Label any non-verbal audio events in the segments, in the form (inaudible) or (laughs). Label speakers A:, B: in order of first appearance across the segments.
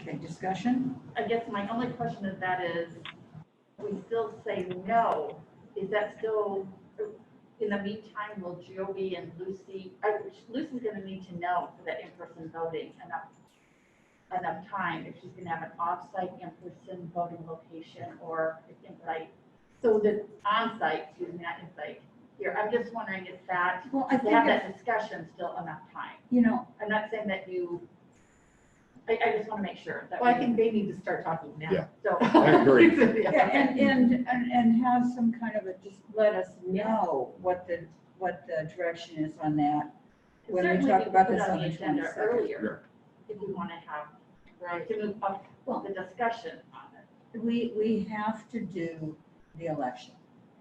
A: Okay, discussion?
B: I guess my only question is that is, we still say no, is that still, in the meantime, will Joey and Lucy, I- Lucy's gonna need to know for that in-person voting enough, enough time, if she's gonna have an off-site in-person voting location or it's in-site, so the on-site, excuse me, not in-site, here, I'm just wondering if that,
A: Well, I
B: to
A: think,
B: have
A: it-
B: that discussion still enough time.
A: you know,
B: I'm not saying that you, I, I just wanna make sure that.
C: Well, I
B: we-
C: think they need to start talking now.
D: Yeah.
B: So. (laughs)
D: I agree.
E: (laughs)
C: Yeah.
A: yeah, and, and, and, and have some kind of a, just let us know what the, what the direction is on that. When we
B: Certainly
A: talk
B: we could
A: about
B: put
A: this on the
B: agenda
A: 22nd.
B: Earlier, if we want to have, right, to move up
A: Well-
B: the discussion on it.
A: We, we have to do the election.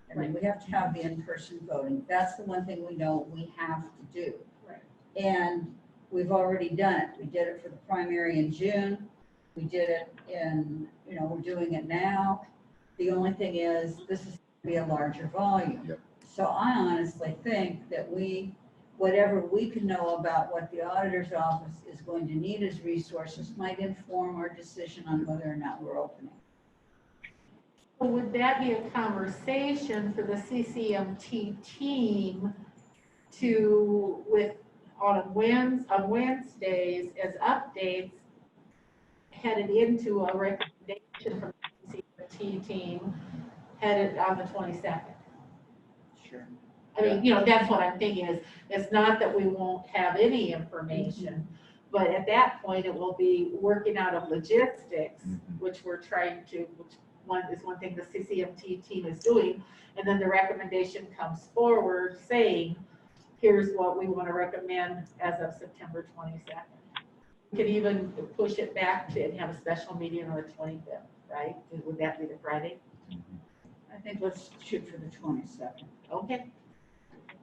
A: I mean, we have to have the in-person voting. That's the one thing we know we have to do.
B: Right.
A: And we've already done it. We did it for the primary in June. We did it in, you know, we're doing it now. The only thing is, this is gonna be a larger volume.
D: Yep.
A: So I honestly think that we, whatever we can know about what the auditor's office is going to need as resources might inform our decision on whether or not we're opening.
E: Well, Would that be a conversation for the CCMT team to, with, on Wednes, on Wednesdays as updates, headed into a recommendation from the CCMT team, headed on the twenty-second?
A: Sure.
E: I mean, you know, that's what I'm thinking is, it's not that we won't have any information,
F: Mm-hmm.
E: but at that point, it will be working out of logistics,
D: Mhm.
E: which we're trying to, which one is one thing the CCMT team is doing. And then the recommendation comes forward saying, here's what we want to recommend as of September twenty-second. Could even push it back to, and have a special meeting on the twenty-fifth, right? Would that be the Friday?
A: I think let's shoot for the twenty-second.
E: Okay.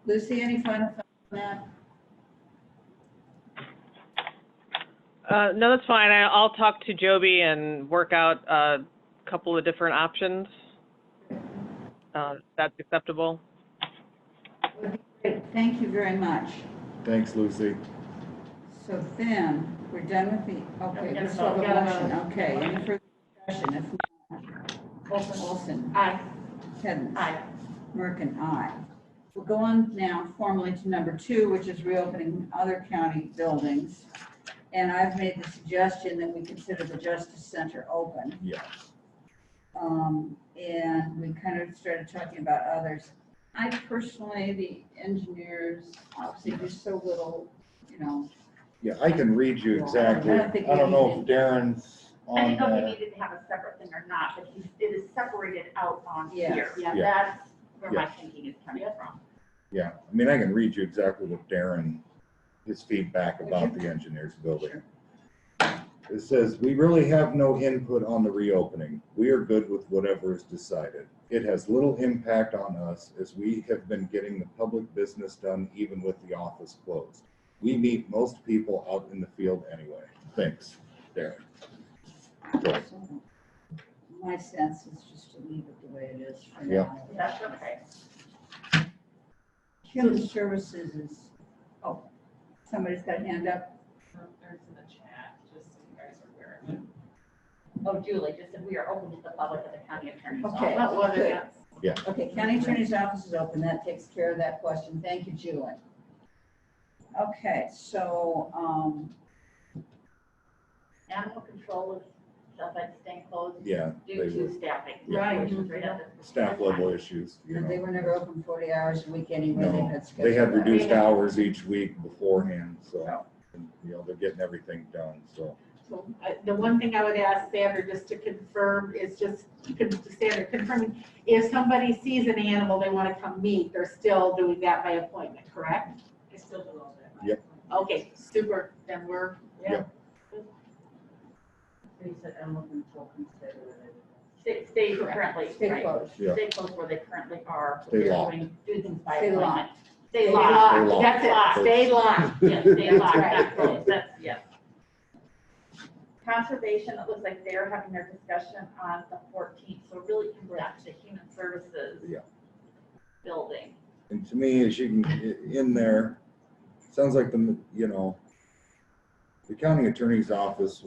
A: Lucy, any final thoughts on that?
G: Uh, no, that's fine. I, I'll talk to Joby and work out uh, a couple of different options. Uh, if that's acceptable.
A: Great, thank you very much.
D: Thanks, Lucy.
A: So then, we're done with the, okay,
B: Yeah,
A: let's have a
E: gotta
A: motion, okay, any further discussion? If not, Olson,
E: Aye.
A: Hens,
B: Aye.
A: Merkin, aye. We'll go on now formally to number two, which is reopening other county buildings. And I've made the suggestion that we consider the Justice Center open.
D: Yeah.
A: Um, and we kind of started talking about others. I personally, the engineers, obviously, there's so little, you know,
D: Yeah, I can read you exactly.
A: I don't think
H: I don't
A: we
H: know
A: need
H: if Darren's
B: I
H: on
B: didn't know if
H: that.
B: we needed to have a separate thing or not, but he's- it is separated out on
A: Yes.
B: here.
E: Yeah.
B: That's where my
D: Yeah.
B: thinking is coming from.
D: Yeah, I mean, I can read you exactly what Darren, his feedback
A: Would
D: about
A: you?
D: the engineers building.
A: Sure.
D: It says, "We really have no input on the reopening. We are good with whatever is decided. It has little impact on us as we have been getting the public business done even with the office closed. We meet most people out in the field anyway. Thanks, Darren." So,
A: My sense is just to leave it the way it is for
D: Yeah.
A: now.
B: That's okay.
A: Human services is, oh, somebody's got a hand up.
F: There's in the chat, just so you guys are aware.
B: Oh, Julie, just that we are open to the public at the county attorney's office.
A: Okay,
E: Well, whether
A: good.
E: that's-
A: Okay, county attorney's office is open. That takes care of that question. Thank you, Julie. Okay, so, um,
B: Animal control is, sounds like staying closed
D: Yeah,
B: due
D: They were-
B: to staffing.
D: Yeah. Right.
B: Straight up.
D: staff level issues, you
A: they
D: know.
A: were never open forty hours a week anyway.
D: No,
A: had
D: They
A: scheduled
D: had
A: hours.
D: reduced hours each week beforehand, so, you know, they're getting everything done, so.
E: So I- the one thing I would ask Sandra, just to confirm, is just, con- Sandra, confirming, if somebody sees an animal they want to come meet, they're still doing that by appointment, correct?
F: I still do all that.
D: Yep.
E: Okay, super, then we're, yeah.
B: Stay, stay currently,
A: Stay
B: right.
A: closed.
D: Yeah.
B: Stay close where they currently are.
D: Stay
B: They're
D: locked.
B: doing- Do things by
A: Stay locked.
B: appointment.
E: Stay
B: Stay locked.
D: Stay
E: locked,
D: locked.
E: that's it, stay locked.
B: Yes, they
D: (laughs)
E: That's
B: lock,
E: right.
B: that's closed, that's, yes. Conservation, it looks like they're having their discussion on the fourteenth, so it really comes back to human services.
D: Yeah.
B: Building.
D: And to me, as you can, in there, sounds like the, you know, the county attorney's office